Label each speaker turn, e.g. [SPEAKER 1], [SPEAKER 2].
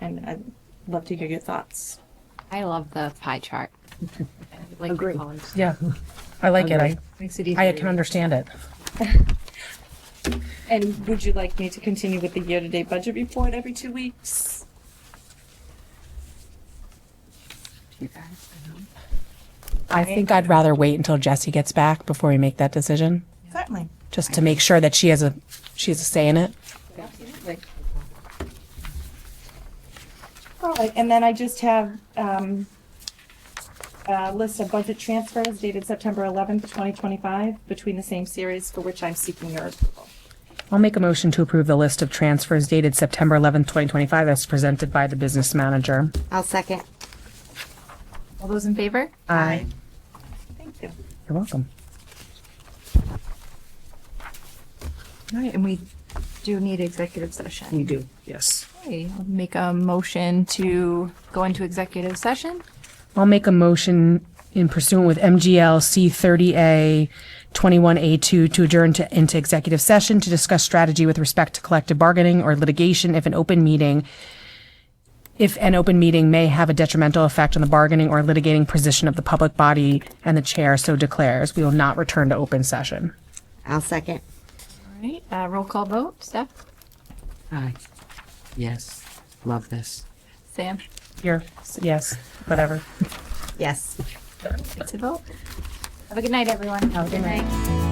[SPEAKER 1] and I'd love to hear your thoughts.
[SPEAKER 2] I love the pie chart. I like the
[SPEAKER 3] Agree.
[SPEAKER 2] columns.
[SPEAKER 4] Yeah, I like it. I,
[SPEAKER 2] Makes it easy.
[SPEAKER 4] I can understand it.
[SPEAKER 1] And would you like me to continue with the year-to-date budget report every two weeks?
[SPEAKER 2] You guys, I don't-
[SPEAKER 4] I think I'd rather wait until Jesse gets back before we make that decision,
[SPEAKER 1] Certainly.
[SPEAKER 4] just to make sure that she has a, she has a say in it.
[SPEAKER 1] Absolutely. All right, and then I just have um, a list of budget transfers dated September 11th, 2025, between the same series for which I'm seeking your approval.
[SPEAKER 4] I'll make a motion to approve the list of transfers dated September 11th, 2025 as presented by the business manager.
[SPEAKER 2] I'll second. All those in favor?
[SPEAKER 4] Aye.
[SPEAKER 1] Thank you.
[SPEAKER 4] You're welcome.
[SPEAKER 2] All right, and we do need executive session.
[SPEAKER 3] You do, yes.
[SPEAKER 2] Okay, I'll make a motion to go into executive session.
[SPEAKER 4] I'll make a motion in pursuant with MGL C thirty A twenty-one A two to adjourn to, into executive session to discuss strategy with respect to collective bargaining or litigation if an open meeting, if an open meeting may have a detrimental effect on the bargaining or litigating position of the public body and the chair so declares, we will not return to open session.
[SPEAKER 5] I'll second.
[SPEAKER 2] All right, uh, roll call vote. Steph?
[SPEAKER 3] Aye. Yes, love this.
[SPEAKER 2] Sam?
[SPEAKER 4] Here, yes, whatever.
[SPEAKER 5] Yes.
[SPEAKER 2] It's a vote. Have a good night, everyone. Have a good night.